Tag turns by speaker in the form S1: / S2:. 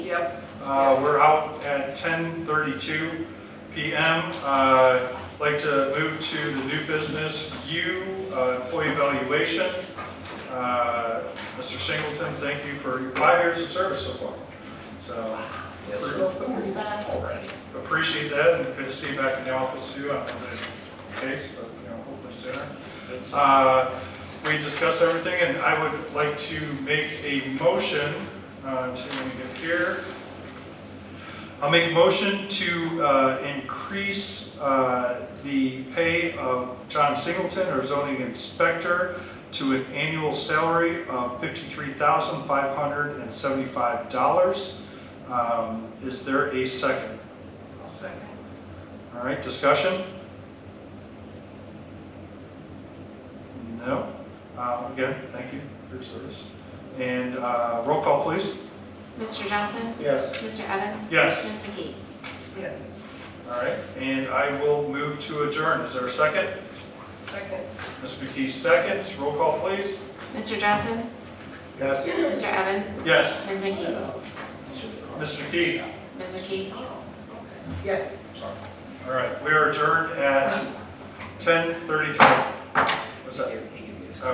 S1: Yep.
S2: Uh, We're out at 10:32 PM. Uh, Like to move to the new business U, uh, employee evaluation. Uh, Mr. Singleton, thank you for your five years of service so far. So
S1: Yes,
S3: Pretty fast already.
S2: appreciate that, and good to see you back in the office too. I don't know the case, but you know, hopefully sooner. Uh, We discussed everything, and I would like to make a motion uh, to, let me get here. I'll make a motion to uh, increase uh, the pay of John Singleton, our zoning inspector, to an annual salary of $53,575. Um, Is there a second?
S3: I'll second.
S2: All right, discussion? No? Uh, Again, thank you for your service. And uh, roll call, please.
S4: Mr. Johnson?
S2: Yes.
S4: Mr. Evans?
S2: Yes,
S4: Ms. McKee?
S3: Yes.
S2: all right, and I will move to adjourn. Is there a second?
S3: Second.
S2: Ms. McKee seconds, roll call, please.
S4: Mr. Johnson?
S2: Yes.
S4: Mr. Evans?
S2: Yes,
S4: Ms. McKee?
S2: Ms. McKee,
S4: Ms. McKee?
S3: Yes.
S2: all right, we are adjourned at 10:33. What's that?